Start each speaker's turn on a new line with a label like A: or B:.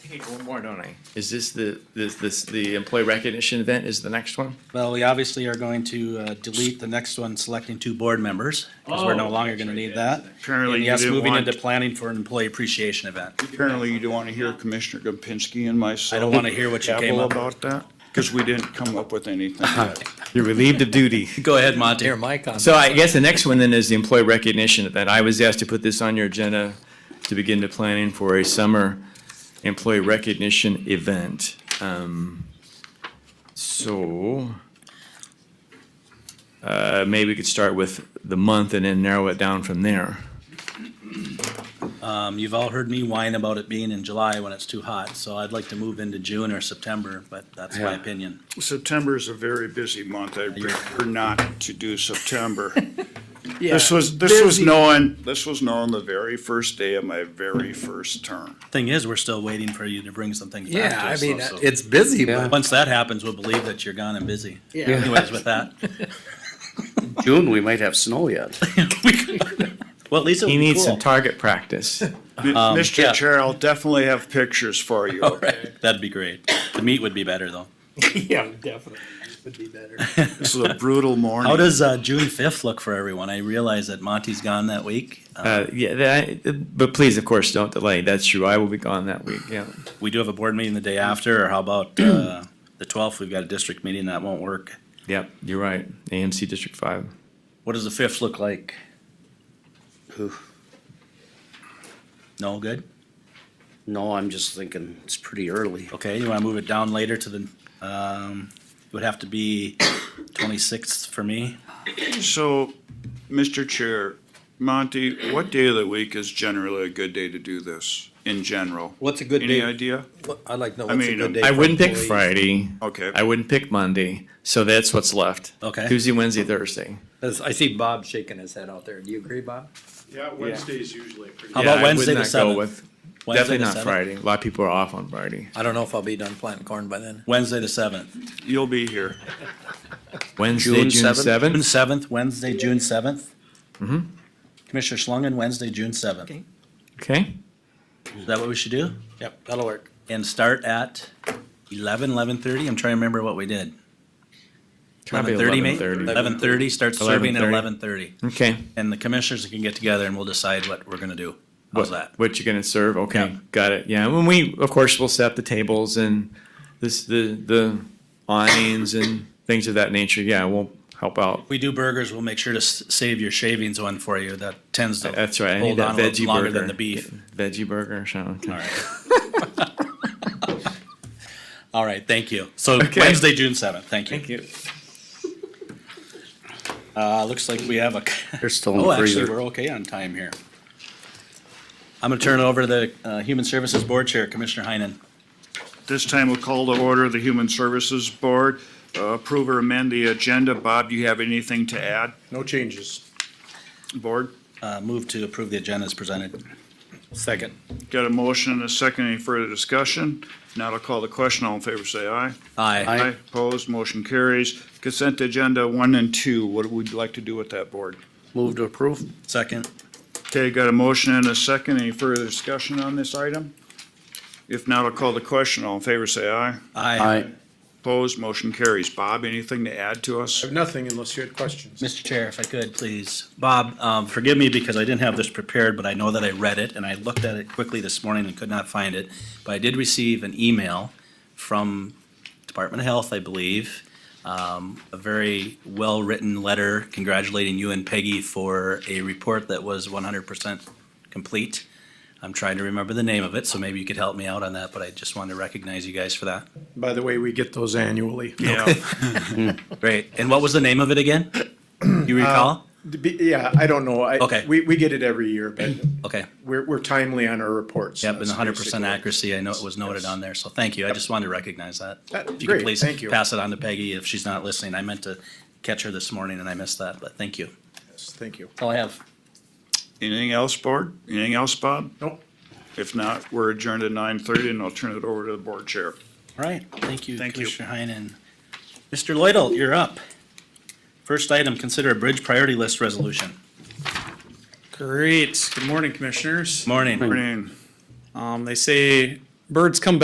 A: hate one more, don't I? Is this the, this, this, the employee recognition event is the next one?
B: Well, we obviously are going to uh, delete the next one, selecting two board members, because we're no
A: Oh,
B: longer going
A: that's
B: to
A: right,
B: need
A: that's
B: that.
A: the next
C: Apparently
B: And
C: you
B: yes,
C: didn't
B: moving
C: want-
B: into planning for an employee appreciation event.
C: Apparently you don't want to hear Commissioner Gopinski and myself.
B: I don't want to hear what you came
C: babble
B: up Uh-huh. with.
C: About that, because we didn't come up with anything.
A: You're relieved of duty.
B: Go ahead, Monty.
D: Here, my comment.
A: So I guess the next one then is the employee recognition event. I was asked to put this on your agenda to begin the planning for a summer employee recognition event. Um, So, uh, maybe we could start with the month and then narrow it down from there.
B: Um, You've all heard me whine about it being in July when it's too hot, so I'd like to move into June or September, but that's my
D: Yeah.
B: opinion.
C: September is a very busy month. I prefer not to do September.
B: Yeah,
C: This was, this was
B: busy.
C: known, this was known the very first day of my very first term.
B: Thing is, we're still waiting for you to bring some things back
D: Yeah,
B: to
D: I
B: us.
D: mean, uh,
B: so- so-
D: it's busy, but
B: Once that happens, we'll believe that you're gone and busy.
D: Yeah.
B: Anyways, with that.
E: June, we might have snow yet.
B: Well, at least it'll
A: He
B: be
A: needs some
B: cool.
A: target practice.
C: M-
B: Um, yeah.
C: Mr. Chair, I'll definitely have pictures for you.
B: That'd be great. The meat would be better, though.
D: Yeah, definitely. Would be better.
C: This is a brutal
B: How
C: morning.
B: does uh, June fifth look for everyone? I realize that Monty's gone that week. Uh,
A: Uh, yeah, that, but please, of course, don't delay. That's true. I will be gone that week, yeah.
B: we do have a board meeting the day after, or how about uh, the twelfth? We've got a district meeting that won't work.
A: Yep, you're right. AMC District Five.
B: What does the fifth look like? No, good.
E: No, I'm just thinking it's pretty early.
B: Okay, you want to move it down later to the? Um, it would have to be twenty sixth for me.
C: So, Mr. Chair, Monty, what day of the week is generally a good day to do this in general?
D: What's a good
C: Any
D: day?
C: idea?
D: What- I'd like to know
C: I
D: what's a
C: mean, um,
D: good day.
A: I
D: for
A: wouldn't pick
D: employees.
A: Friday.
C: Okay.
A: I wouldn't pick Monday. So that's what's left.
B: Okay.
A: Tuesday, Wednesday, Thursday.
D: 'Cause I see Bob shaking his head out there. Do you agree, Bob?
F: Yeah, Wednesday's usually a pretty.
B: How
A: Yeah,
B: about
A: I would
B: Wednesday the
A: not go
B: seventh?
A: with- Definitely not Friday. A lot of people are off on Friday.
D: I don't know if I'll be done planting corn by then.
B: Wednesday the seventh.
C: You'll be here.
A: Wednesday,
E: June
A: June
E: 7th?
B: June
A: seventh.
B: seventh, Wednesday, June 7th Commissioner Schlangen, Wednesday, June seventh.
D: Okay.
A: Okay.
B: Is that what we should do?
D: Yep, that'll work.
B: and start at eleven, eleven thirty. I'm trying to remember what we did.
A: Probably 11:30.
B: Eleven thirty, start serving at
A: 11:30.
B: eleven thirty.
A: Okay.
B: And the commissioners can get together and we'll decide what we're gonna do.
A: What,
B: How's that?
A: what you're gonna serve? Okay,
B: Yeah.
A: got it. Yeah, and we of course will set the tables and this the the awnings and things of that nature. Yeah, we'll help out.
B: If we do burgers, we'll make sure to s- save your shavings one for you. That tends to
A: That's right. I need
B: hold
A: that
B: on a
A: veggie
B: little longer
A: burger.
B: than the beef.
A: Veggie burger. So okay.
B: All right. All right, thank you. So Wednesday, June seventh, thank you.
A: Thank you.
B: Uh, looks like we have a
E: They're still in
B: Oh,
E: the
B: actually,
E: freezer.
B: we're okay on time here. I'm gonna turn it over to the uh, Human Services Board Chair, Commissioner Heinen.
C: This time we'll call to order the Human Services Board. Uh, Approve or amend the agenda. Bob, do you have anything to add,
F: No changes.
C: Board?
B: Uh, Move to approve the agenda as presented.
F: Second.
C: Got a motion and a second. Any further discussion? Now I'll call the question. All in favor, say aye.
B: Aye.
C: Opposed, motion carries. Consent agenda one and two. What would you like to do with that, Board?
E: Move to approve?
B: Second.
C: Okay, got a motion and a second. Any further discussion on this item? If not, I'll call the question. All in favor, say aye.
E: Aye.
C: Opposed, motion carries. Bob, anything to add to us?
F: I have nothing unless you had questions.
B: Mr. Chair, if I could, please. Bob, um, forgive me because I didn't have this prepared, but I know that I read it and I looked at it quickly this morning and could not find it. But I did receive an email from Department of Health, I believe, um, a very well-written letter congratulating you and Peggy for a report that was one hundred percent complete. I'm trying to remember the name of it, so maybe you could help me out on that, but I just wanted to recognize you guys for that.
F: By the way, we get those annually.
C: Yeah.
B: Great. And what was the name of it again? You recall?
F: To be- Yeah, I don't know. I-
B: Okay.
F: We, we get it every year, but
B: Okay.
F: we're, we're timely on our reports.
B: Yep, and
F: That's
B: hundred percent
F: basically-
B: accuracy, I know it was noted on there, so thank you, I just wanted to recognize that.
F: That-
B: If you could
F: great,
B: please
F: thank you.
B: Pass it on to Peggy if she's not listening, I meant to catch her this morning and I missed that, but thank you.
F: Yes, Thank you.
B: That's all I have.
C: Anything else, Board? Anything else, Bob?
F: Nope.
C: If not, we're adjourned at nine thirty and I'll turn it over to the Board Chair.
B: All right, thank you,
C: Thank you.
B: Commissioner Heinen. Mr. Lloydell, you're up. First item, consider a bridge priority list resolution.
G: Great. Good morning, commissioners.
B: Morning.
C: Green.
G: Um, they say birds come back.